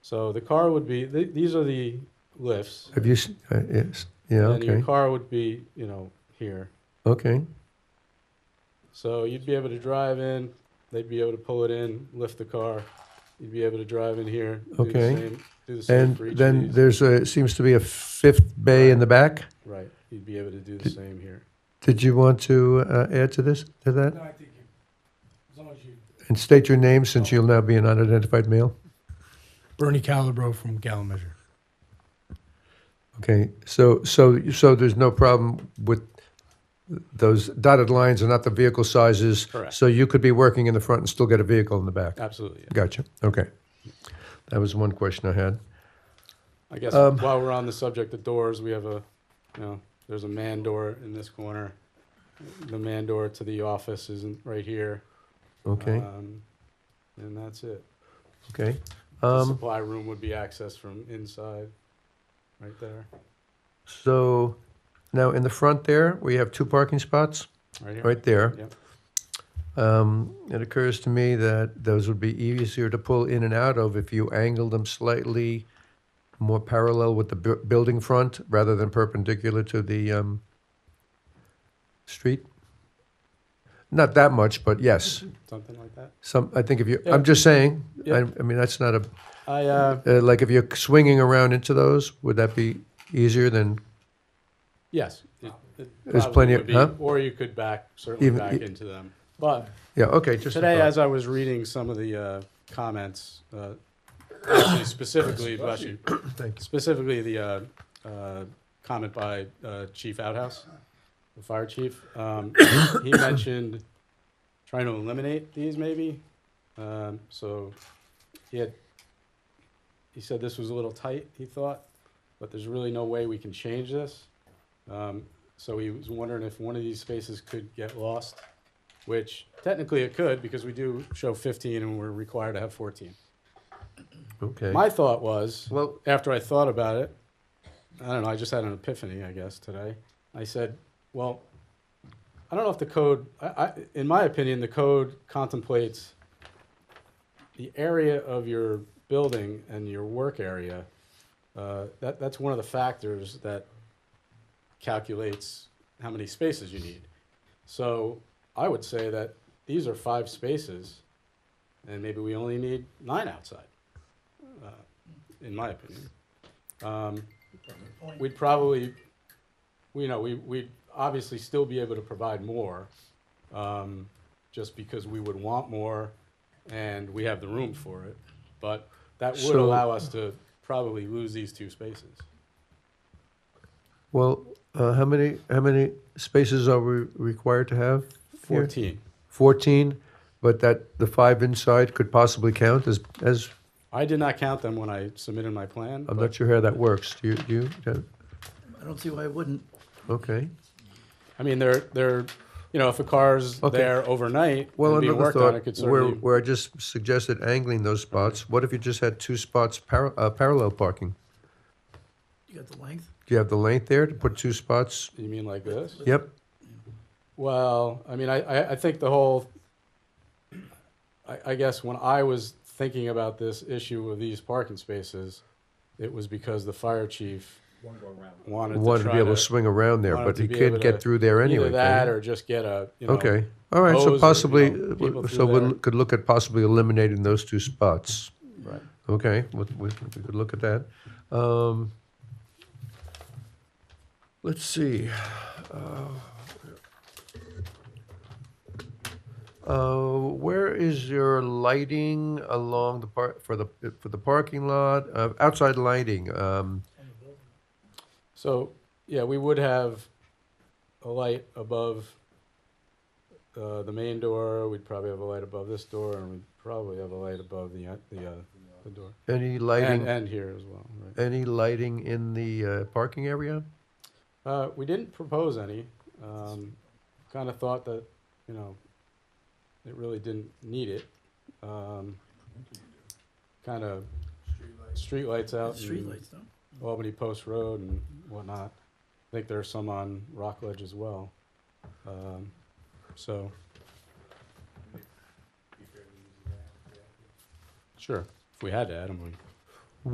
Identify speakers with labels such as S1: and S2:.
S1: So the car would be, th- these are the lifts.
S2: Have you, s- uh, yes, yeah,
S1: And your
S2: okay,
S1: car would be, you know, here.
S2: okay,
S1: So you'd be able to drive in, they'd be able to pull it in, lift the car. You'd be able to drive in here. do the
S2: Okay.
S1: same- Do the same
S2: and
S1: for each of
S2: then
S1: these.
S2: there's a, seems to be a fifth bay in the back.
S1: Right, you'd be able to do the same here.
S2: Did you want to uh, add to this, to that?
S3: No, I think you, as long as you.
S2: And state your name, since you'll now be an unidentified male.
S3: Bernie Calabro from Measure.
S2: Okay, so, so, so there's no problem with those dotted lines are not the vehicle sizes?
S1: Correct.
S2: So you could be working in the front and still get a vehicle in the back?
S1: Absolutely. yeah.
S2: Gotcha, okay. That was one question I had.
S1: I guess
S2: Um,
S1: while we're on the subject of doors, we have a, you know, there's a man door in this corner. The man door to the office isn't right here.
S2: Okay,
S1: Um, and that's it.
S2: okay.
S1: The
S2: Um,
S1: supply room would be accessed from inside, right there,
S2: So now in the front there, we have two parking spots
S1: right here.
S2: right there.
S1: Yep.
S2: Um, It occurs to me that those would be easier to pull in and out of if you angled them slightly more parallel with the bu- building front rather than perpendicular to the um, street. Not that much, but yes,
S1: Something like that.
S2: some, I think if you,
S1: Yeah.
S2: I'm just saying, I
S1: Yeah.
S2: I mean, that's not a,
S1: I, uh,
S2: uh, like if you're swinging around into those, would that be easier than
S1: yes. it- it
S2: There's
S1: probably
S2: plenty
S1: would
S2: of-
S1: be,
S2: huh?
S1: Or you could back, certainly
S2: Even-
S1: back into them. But
S2: Yeah, okay, just. a
S1: Today,
S2: thought.
S1: as I was reading some of the uh, comments, uh, actually specifically, bless you,
S2: Thank
S1: specifically the uh, uh, comment by uh, Chief Outhouse, the fire chief, um, he mentioned trying to eliminate these maybe. Um, So he had, he said this was a little tight, he thought, but there's really no way we can change this. Um, So he was wondering if one of these spaces could get lost which technically it could because we do show 15 and we're required to have 14.
S2: Okay.
S1: My thought was,
S2: Well,
S1: after I thought about it, I don't know, I just had an epiphany, I guess, today. I said, well, I don't know if the code, I, I, in my opinion, the code contemplates the area of your building and your work area. Uh, that, that's one of the factors that calculates how many spaces you need. So I would say that these are five spaces, and maybe we only need nine outside, uh, in my opinion. Um, we'd probably, you know, we, we'd obviously still be able to provide more, um, just because we would want more, and we have the room for it. But that would
S2: So-
S1: allow us to probably lose these two spaces.
S2: well, uh, how many, how many spaces are we required to have? here?
S1: Fourteen.
S2: Fourteen, but that the five inside could possibly count as, as,
S1: I did not count them when I submitted my plan.
S2: I'm
S1: but-
S2: not sure how that works. Do you, do you, Jen?
S4: I don't see why it wouldn't.
S2: okay.
S1: I mean, they're they're, you know, if a car's
S2: Okay.
S1: there overnight
S2: Well,
S1: and being
S2: another
S1: worked on, it could
S2: thought, where,
S1: certainly.
S2: where I just suggested angling those spots, what if you just had two spots par, uh, parallel parking?
S4: You got the length?
S2: Do you have the length there to put two spots?
S1: You mean like this?
S2: Yep,
S1: Well, I mean, I, I, I think the whole, I, I guess when I was thinking about this issue of these parking spaces, it was because the fire chief wanted to
S2: wanted to
S1: try
S2: be able to
S1: to.
S2: swing around there,
S1: wanted
S2: but
S1: to
S2: you
S1: be
S2: can't
S1: able
S2: get
S1: to
S2: through there anyway.
S1: Either
S2: can
S1: that
S2: you?
S1: or just get a, you know.
S2: Okay, all right,
S1: hose or,
S2: so
S1: you
S2: possibly,
S1: know,
S2: uh,
S1: people
S2: so
S1: through
S2: we'll
S1: there.
S2: look- could look at possibly eliminating those two spots.
S1: Right.
S2: Okay, we, we we could look at that. Um, Let's see. Uh, uh, Where is your lighting along the part, for the, for the parking lot, Uh, outside lighting? um,
S1: So, yeah, we would have a light above uh, the main door, we'd probably have a light above this door, and we'd probably have a light above the, uh, the, uh, the door.
S2: Any
S1: And,
S2: lighting,
S1: and here as well, right.
S2: any lighting in the uh, parking area?
S1: Uh, we didn't propose any, um, kind of thought that, you know, it really didn't need it. Um, kind of streetlights out in
S4: Streetlights, no?
S1: Albany Post Road and whatnot. I think there are some on Rockledge as well. Um, so. Sure, if we had to add them, we